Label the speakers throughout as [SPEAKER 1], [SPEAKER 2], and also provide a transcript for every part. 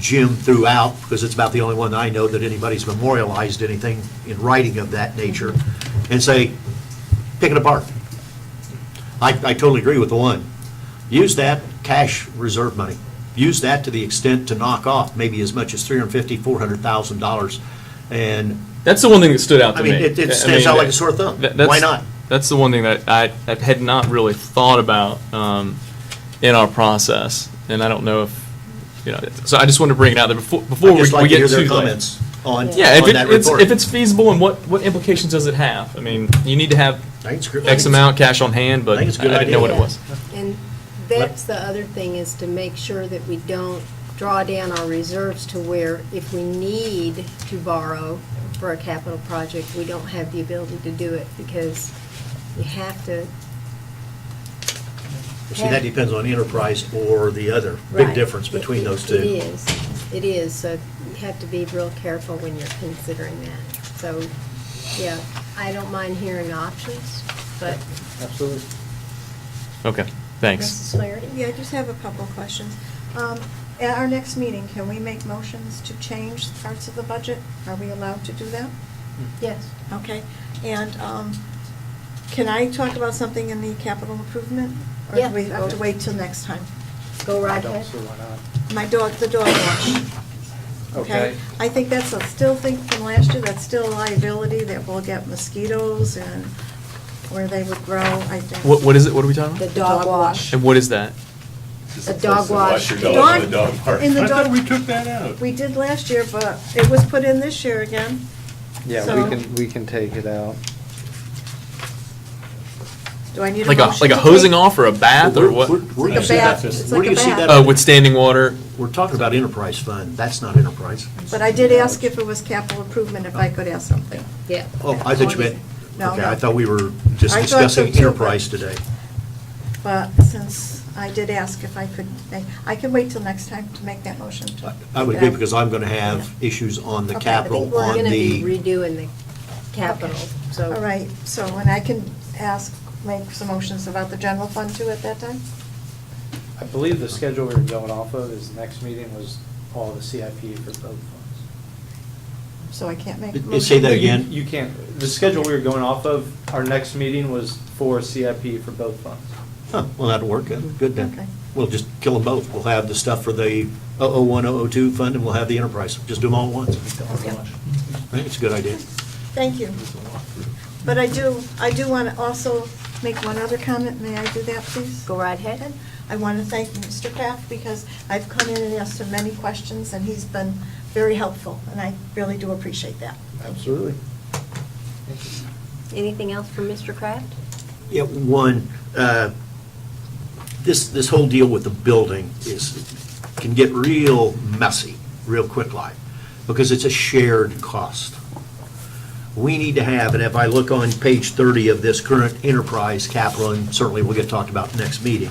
[SPEAKER 1] Jim throughout, because it's about the only one I know that anybody's memorialized anything in writing of that nature, and say, pick it apart. I, I totally agree with the one. Use that cash reserve money. Use that to the extent to knock off maybe as much as three hundred fifty, four hundred thousand dollars. And,
[SPEAKER 2] That's the one thing that stood out to
[SPEAKER 1] I mean,
[SPEAKER 2] me.
[SPEAKER 1] it,
[SPEAKER 2] I- I
[SPEAKER 1] it stands out
[SPEAKER 2] mean,
[SPEAKER 1] like a sore thumb.
[SPEAKER 2] that- that's-
[SPEAKER 1] Why not?
[SPEAKER 2] That's the one thing that I, I had not really thought about um, in our process, and I don't know if you know. So I just wanted to bring it out there before before
[SPEAKER 1] I'd just
[SPEAKER 2] we,
[SPEAKER 1] like
[SPEAKER 2] we
[SPEAKER 1] to
[SPEAKER 2] get
[SPEAKER 1] hear
[SPEAKER 2] too
[SPEAKER 1] their
[SPEAKER 2] late.
[SPEAKER 1] comments on, on
[SPEAKER 2] Yeah, if, it,
[SPEAKER 1] that
[SPEAKER 2] it's,
[SPEAKER 1] report.
[SPEAKER 2] if it's feasible and what, what implications does it have? I mean, you need to have
[SPEAKER 1] I think it's a good-
[SPEAKER 2] X amount cash on hand, but
[SPEAKER 1] I
[SPEAKER 2] I
[SPEAKER 1] think it's a good
[SPEAKER 2] didn't know what it
[SPEAKER 1] idea.
[SPEAKER 2] was.
[SPEAKER 3] And that's the other thing, is to make sure that we don't draw down our reserves to where if we need to borrow for a capital project, we don't have the ability to do it, because you have to,
[SPEAKER 1] See, that depends on enterprise or the other. Big
[SPEAKER 3] right.
[SPEAKER 1] difference between
[SPEAKER 3] It-
[SPEAKER 1] those
[SPEAKER 3] It
[SPEAKER 1] two.
[SPEAKER 3] is, it is, so you have to be real careful when you're considering that. So, yeah, I don't mind hearing options, but
[SPEAKER 4] Absolutely.
[SPEAKER 2] Okay, thanks.
[SPEAKER 3] Mrs. Flaherty?
[SPEAKER 5] Yeah, I just have a couple of questions. Um, At our next meeting, can we make motions to change parts of the budget? Are we allowed to do that?
[SPEAKER 3] Yes.
[SPEAKER 5] Okay, and um, can I talk about something in the capital improvement? Or
[SPEAKER 3] Yeah.
[SPEAKER 5] do we have to wait till next time?
[SPEAKER 3] Go
[SPEAKER 4] I
[SPEAKER 3] right
[SPEAKER 4] don't
[SPEAKER 3] ahead.
[SPEAKER 4] see why not.
[SPEAKER 5] My dog, the dog wash.
[SPEAKER 4] Okay.
[SPEAKER 5] I think that's a still thing from last year, that's still a liability that we'll get mosquitoes and where they would grow, I think.
[SPEAKER 2] What, what is it? What are we talking
[SPEAKER 3] The
[SPEAKER 2] about?
[SPEAKER 3] dog wash.
[SPEAKER 2] And what is that?
[SPEAKER 3] A dog wash.
[SPEAKER 5] The dog- In the
[SPEAKER 6] I thought
[SPEAKER 5] dog,
[SPEAKER 6] we took that out.
[SPEAKER 5] we did last year, but it was put in this year again.
[SPEAKER 4] Yeah,
[SPEAKER 5] So-
[SPEAKER 4] we can, we can take it out.
[SPEAKER 5] Do I need a
[SPEAKER 2] Like
[SPEAKER 5] motion?
[SPEAKER 2] a like a
[SPEAKER 5] to
[SPEAKER 2] hosing
[SPEAKER 5] take-
[SPEAKER 2] off or a bath or
[SPEAKER 1] Where-
[SPEAKER 2] what?
[SPEAKER 1] where- Where do you
[SPEAKER 5] Like a
[SPEAKER 1] see that?
[SPEAKER 5] bath. It's
[SPEAKER 1] Where
[SPEAKER 5] like
[SPEAKER 1] do
[SPEAKER 5] a
[SPEAKER 1] you see
[SPEAKER 5] bath.
[SPEAKER 1] that?
[SPEAKER 2] Uh, with standing water.
[SPEAKER 1] We're talking about enterprise fund. That's not enterprise.
[SPEAKER 5] But I did ask if it was capital improvement, if I could ask something.
[SPEAKER 3] Yeah.
[SPEAKER 1] Oh, I thought you meant,
[SPEAKER 5] No,
[SPEAKER 1] okay,
[SPEAKER 5] no.
[SPEAKER 1] I thought we were just
[SPEAKER 5] I thought so
[SPEAKER 1] discussing
[SPEAKER 5] too, but-
[SPEAKER 1] enterprise today.
[SPEAKER 5] But since I did ask if I could make, I can wait till next time to make that motion. to-
[SPEAKER 1] I- I would agree because I'm going to have issues on the
[SPEAKER 5] Okay, I think
[SPEAKER 3] I think
[SPEAKER 1] capital,
[SPEAKER 3] we're
[SPEAKER 1] on
[SPEAKER 3] going to be
[SPEAKER 1] the,
[SPEAKER 3] redoing the capital, so.
[SPEAKER 5] All right, so, and I can ask, make some motions about the general fund too at that time?
[SPEAKER 4] I believe the schedule we were going off of is next meeting was all the CIP for both funds.
[SPEAKER 5] So I can't make.
[SPEAKER 1] It- it
[SPEAKER 5] motion?
[SPEAKER 1] say that
[SPEAKER 4] You-
[SPEAKER 1] again?
[SPEAKER 4] You can't, the schedule we were going off of, our next meeting was for CIP for both funds.
[SPEAKER 1] huh, well, that'll work, good good
[SPEAKER 5] Okay.
[SPEAKER 1] then. We'll just kill them both. We'll have the stuff for the 001, 002 fund, and we'll have the enterprise. Just do them all at once.
[SPEAKER 5] Okay.
[SPEAKER 1] I think it's a good idea.
[SPEAKER 5] Thank you. But I do, I do want to also make one other comment. May I do that, please?
[SPEAKER 3] Go right ahead.
[SPEAKER 5] I want to thank Mr. Kraft because I've come in and asked him many questions, and he's been very helpful, and I really do appreciate that.
[SPEAKER 4] Absolutely.
[SPEAKER 3] Anything else from Mr. Kraft?
[SPEAKER 1] Yeah, one, uh, this, this whole deal with the building is, can get real messy, real quick like, because it's a shared cost. We need to have, and if I look on page 30 of this current enterprise capital, and certainly will get talked about next meeting,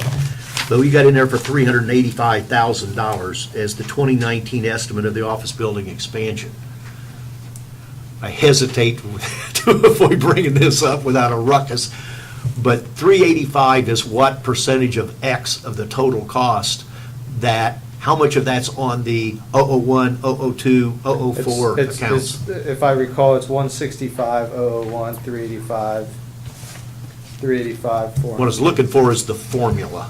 [SPEAKER 1] though you got in there for $385,000 as the 2019 estimate of the office building expansion. I hesitate to avoid bringing this up without a ruckus, but 385 is what percentage of X of the total cost that, how much of that's on the 001, 002, 004
[SPEAKER 4] It's- it's-
[SPEAKER 1] Oh, accounts?
[SPEAKER 4] it's- If I recall, it's one sixty-five, oh oh one, three eighty-five, three eighty-five, four.
[SPEAKER 1] What I was looking for is the formula.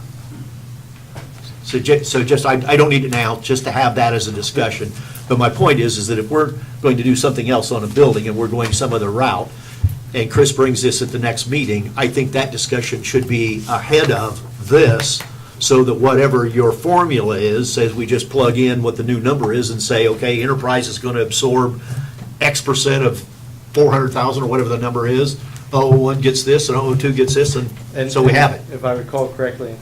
[SPEAKER 1] So ju, so just, I, I don't need it now, just to have that as a discussion. But my point is, is that if we're going to do something else on a building and we're going some other route, and Chris brings this at the next meeting, I think that discussion should be ahead of this, so that whatever your formula is, says we just plug in what the new number is and say, okay, enterprise is gonna absorb X percent of four hundred thousand, or whatever the number is, oh, one gets this, and oh, two gets this, and
[SPEAKER 4] And-
[SPEAKER 1] so we have it.
[SPEAKER 4] If I recall correctly,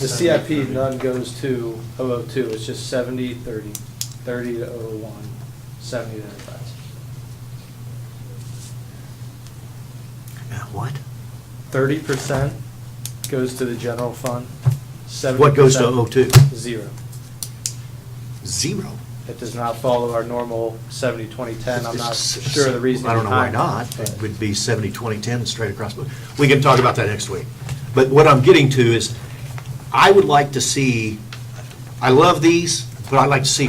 [SPEAKER 4] the CIP none goes to 002, it's just 70, 30, 30 to 001, 70 to oh enterprise.
[SPEAKER 1] Yeah, What?
[SPEAKER 4] 30% goes to the general fund, 70%.
[SPEAKER 1] What goes to 002?
[SPEAKER 4] Zero.
[SPEAKER 1] Zero.
[SPEAKER 4] It does not follow our normal 70, 20, 10, I'm not
[SPEAKER 1] It's-
[SPEAKER 4] sure of the reason
[SPEAKER 1] I don't know why
[SPEAKER 4] behind
[SPEAKER 1] not.
[SPEAKER 4] it, but-
[SPEAKER 1] It would be 70, 20, 10, straight across. But We can talk about that next week. But what I'm getting to is, I would like to see, I love these, but I'd like to see